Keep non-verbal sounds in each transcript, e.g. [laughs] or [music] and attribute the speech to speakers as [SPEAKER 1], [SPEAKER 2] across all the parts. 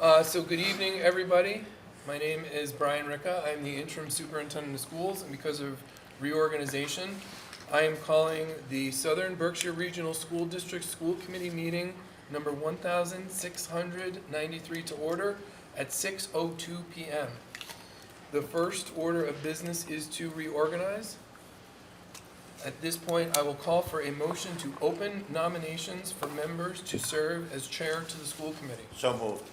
[SPEAKER 1] Uh, so good evening, everybody. My name is Brian Ricca. I'm the interim superintendent of schools, and because of reorganization, I am calling the Southern Berkshire Regional School District School Committee meeting number one thousand six hundred ninety-three to order at six oh two PM. The first order of business is to reorganize. At this point, I will call for a motion to open nominations for members to serve as chair to the school committee.
[SPEAKER 2] So moved.
[SPEAKER 1] Would you-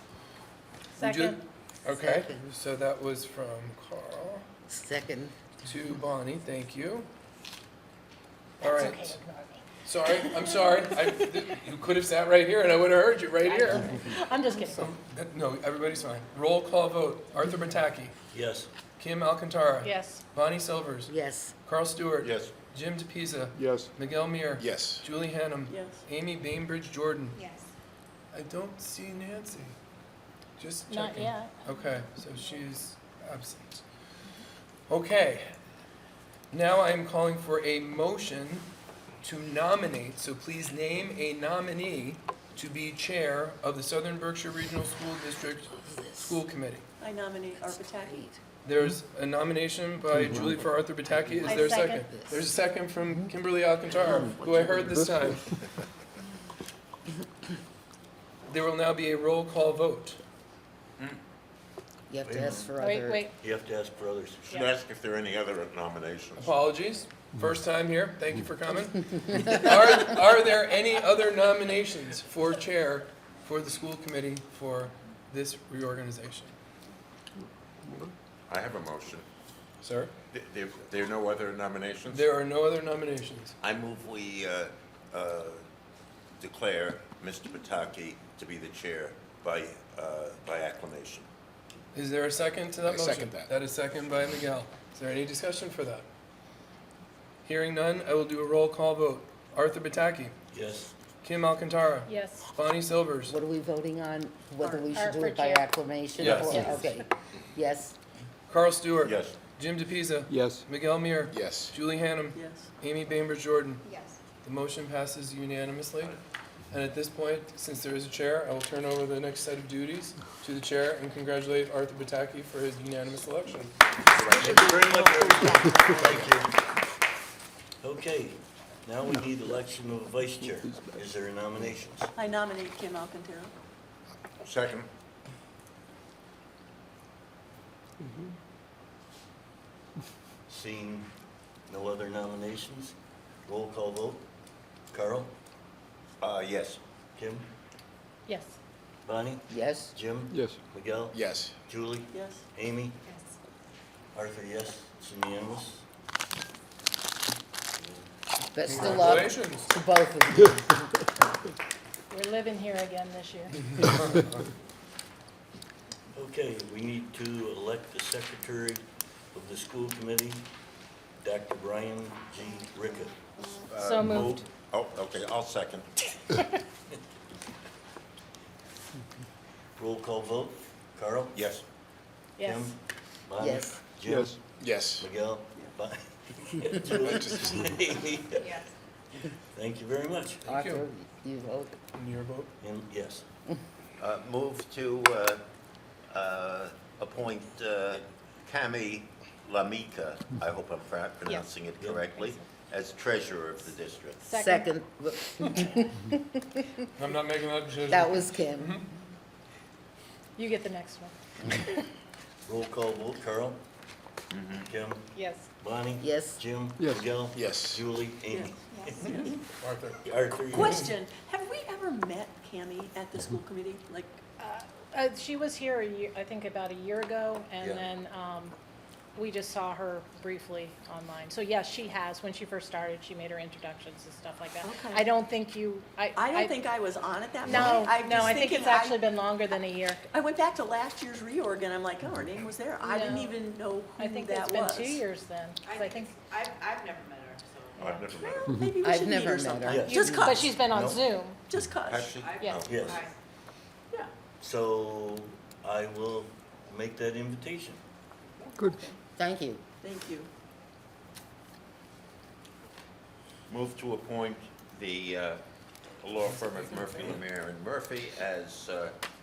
[SPEAKER 3] Second.
[SPEAKER 1] Okay,
[SPEAKER 4] Second.
[SPEAKER 1] so that was from Carl
[SPEAKER 4] Second,
[SPEAKER 1] to Bonnie, thank you. All
[SPEAKER 3] It's
[SPEAKER 1] right,
[SPEAKER 3] okay to ignore me.
[SPEAKER 1] sorry, I'm sorry, I, th- you could have sat right here and I would have heard you right here.
[SPEAKER 3] I'm just kidding.
[SPEAKER 1] So, uh, No, everybody's fine. Roll call vote, Arthur Bataki,
[SPEAKER 2] Yes.
[SPEAKER 1] Kim Alcantara.
[SPEAKER 3] Yes,
[SPEAKER 1] Bonnie Silvers,
[SPEAKER 4] yes,
[SPEAKER 1] Carl Stewart.
[SPEAKER 2] Yes.
[SPEAKER 1] Jim DePisa,
[SPEAKER 5] Yes.
[SPEAKER 1] Miguel Muir.
[SPEAKER 2] Yes.
[SPEAKER 1] Julie Hanem.
[SPEAKER 6] Yes.
[SPEAKER 1] Amy Bainbridge Jordan.
[SPEAKER 6] Yes.
[SPEAKER 1] I don't see Nancy. Just checking.
[SPEAKER 3] not yet.
[SPEAKER 1] Okay, so she's absent. Okay, now I am calling for a motion to nominate, so please name a nominee to be chair of the Southern Berkshire Regional School District School Committee.
[SPEAKER 6] I nominate Arpitaki.
[SPEAKER 1] There's a nomination by Julie for Arthur Bataki, is
[SPEAKER 3] I
[SPEAKER 1] there a second?
[SPEAKER 3] second.
[SPEAKER 1] There's a second from Kimberly Alcantar, who I heard this time. There will now be a roll call vote.
[SPEAKER 4] you have to ask for
[SPEAKER 3] Wait,
[SPEAKER 4] other,
[SPEAKER 3] wait,
[SPEAKER 7] You have to ask for others.
[SPEAKER 2] Should ask if there are any other nominations.
[SPEAKER 1] Apologies,
[SPEAKER 8] Mm-hmm.
[SPEAKER 1] first time here, thank you for coming.
[SPEAKER 8] [laughs]
[SPEAKER 1] Are, are there any other nominations for chair for the school committee for this reorganization?
[SPEAKER 2] I have a motion.
[SPEAKER 1] Sir?
[SPEAKER 2] Th- There, there are no other nominations?
[SPEAKER 1] There are no other nominations.
[SPEAKER 2] I move we uh, uh, declare Mr. Pataki to be the chair by, uh, by acclamation.
[SPEAKER 1] Is there a second to that
[SPEAKER 8] I
[SPEAKER 1] motion?
[SPEAKER 8] second that.
[SPEAKER 1] That is second by Miguel. Is there any discussion for that? Hearing none, I will do a roll call vote. Arthur Bataki,
[SPEAKER 7] Yes.
[SPEAKER 1] Kim Alcantara,
[SPEAKER 3] yes.
[SPEAKER 1] Bonnie Silvers,
[SPEAKER 4] what are we voting on? Whether we
[SPEAKER 3] Art
[SPEAKER 4] should do
[SPEAKER 3] for
[SPEAKER 4] it by
[SPEAKER 3] chair.
[SPEAKER 4] acclamation?
[SPEAKER 2] Yes.
[SPEAKER 4] or-
[SPEAKER 3] Yes.
[SPEAKER 4] Okay, yes,
[SPEAKER 1] Carl Stewart.
[SPEAKER 2] Yes.
[SPEAKER 1] Jim DePisa.
[SPEAKER 5] Yes.
[SPEAKER 1] Miguel Muir.
[SPEAKER 8] Yes.
[SPEAKER 1] Julie Hanem.
[SPEAKER 6] Yes.
[SPEAKER 1] Amy Bainbridge Jordan.
[SPEAKER 6] Yes.
[SPEAKER 1] The motion passes unanimously. And at this point, since there is a chair, I will turn over the next set of duties to the chair and congratulate Arthur Bataki for his unanimous election.
[SPEAKER 7] Thank you very much, everybody. Thank you. Okay, now we need election of a vice chair. Is there nominations?
[SPEAKER 6] I nominate Kim Alcantara.
[SPEAKER 2] Second?
[SPEAKER 7] Seeing no other nominations, roll call vote. Carl,
[SPEAKER 2] Uh, Yes.
[SPEAKER 7] Kim,
[SPEAKER 3] Yes,
[SPEAKER 7] Bonnie,
[SPEAKER 4] yes,
[SPEAKER 7] Jim,
[SPEAKER 5] Yes.
[SPEAKER 7] Miguel,
[SPEAKER 8] Yes.
[SPEAKER 7] Julie,
[SPEAKER 6] Yes.
[SPEAKER 7] Amy,
[SPEAKER 6] Yes.
[SPEAKER 7] Arthur, yes, it's unanimous.
[SPEAKER 4] best of luck
[SPEAKER 1] Congratulations.
[SPEAKER 4] to both of you.
[SPEAKER 3] we're living here again this year.
[SPEAKER 7] Okay, we need to elect the secretary of the school committee, Dr. Brian G. Rickett.
[SPEAKER 3] So moved.
[SPEAKER 2] Oh, okay, I'll second.
[SPEAKER 7] Roll call vote. Carl?
[SPEAKER 2] Yes.
[SPEAKER 3] Yes,
[SPEAKER 7] Kim? Bonnie?
[SPEAKER 4] Yes.
[SPEAKER 7] Jim?
[SPEAKER 5] Yes.
[SPEAKER 8] Yes.
[SPEAKER 7] Miguel? [laughs] Bonnie? Julie?
[SPEAKER 6] Yes.
[SPEAKER 7] Thank you very much.
[SPEAKER 1] Thank you.
[SPEAKER 4] Arthur, you vote,
[SPEAKER 1] And your vote?
[SPEAKER 7] And yes,
[SPEAKER 2] Uh, Move to uh, uh, appoint uh, Kami Lamika, I hope I'm pro- pronouncing it correctly, as treasurer of the district.
[SPEAKER 3] second.
[SPEAKER 4] second, but
[SPEAKER 1] I'm not making that decision.
[SPEAKER 4] that was Kim,
[SPEAKER 3] You get the next one.
[SPEAKER 7] roll call vote. Carl? Kim?
[SPEAKER 3] Yes,
[SPEAKER 7] Bonnie?
[SPEAKER 4] Mm-hmm. Yes.
[SPEAKER 7] Jim?
[SPEAKER 5] Yes.
[SPEAKER 7] Miguel?
[SPEAKER 8] Yes.
[SPEAKER 7] Julie? Amy? [laughs]
[SPEAKER 1] Arthur.
[SPEAKER 7] Arthur? yes.
[SPEAKER 6] Question, have we ever met Kami at the school committee? Like,
[SPEAKER 3] uh, she was here a year, I think about a year ago, and
[SPEAKER 7] Yeah.
[SPEAKER 3] then, um, we just saw her briefly online. So yes, she has, when she first started, she made her introductions and stuff like that.
[SPEAKER 6] Okay.
[SPEAKER 3] I don't think you, I.
[SPEAKER 6] I don't think I was on at that meeting.
[SPEAKER 3] No,
[SPEAKER 6] I'm
[SPEAKER 3] no,
[SPEAKER 6] just
[SPEAKER 3] I think
[SPEAKER 6] thinking
[SPEAKER 3] it's actually been longer than a year.
[SPEAKER 6] I went back to last year's reorg and I'm like, oh, her name was there. I didn't
[SPEAKER 3] No.
[SPEAKER 6] even know
[SPEAKER 3] I
[SPEAKER 6] who
[SPEAKER 3] think it's
[SPEAKER 6] that was.
[SPEAKER 3] been two years then, 'cause I think,
[SPEAKER 9] I've, I've never met her, so.
[SPEAKER 2] I've never met her.
[SPEAKER 6] Well, maybe we
[SPEAKER 4] I've
[SPEAKER 6] should meet
[SPEAKER 4] never
[SPEAKER 6] her
[SPEAKER 4] met her.
[SPEAKER 6] sometime.
[SPEAKER 7] Yeah.
[SPEAKER 6] Just
[SPEAKER 3] but
[SPEAKER 6] cuz,
[SPEAKER 3] she's been on
[SPEAKER 7] No.
[SPEAKER 3] Zoom.
[SPEAKER 6] just cuz.
[SPEAKER 2] Actually,
[SPEAKER 9] I've-
[SPEAKER 3] Yeah.
[SPEAKER 7] Yes.
[SPEAKER 9] I-
[SPEAKER 6] Yeah.
[SPEAKER 7] So I will make that invitation.
[SPEAKER 5] Good.
[SPEAKER 4] thank you.
[SPEAKER 6] Thank you.
[SPEAKER 2] Move to appoint the uh, law firm of Murphy, Lemire and Murphy as uh,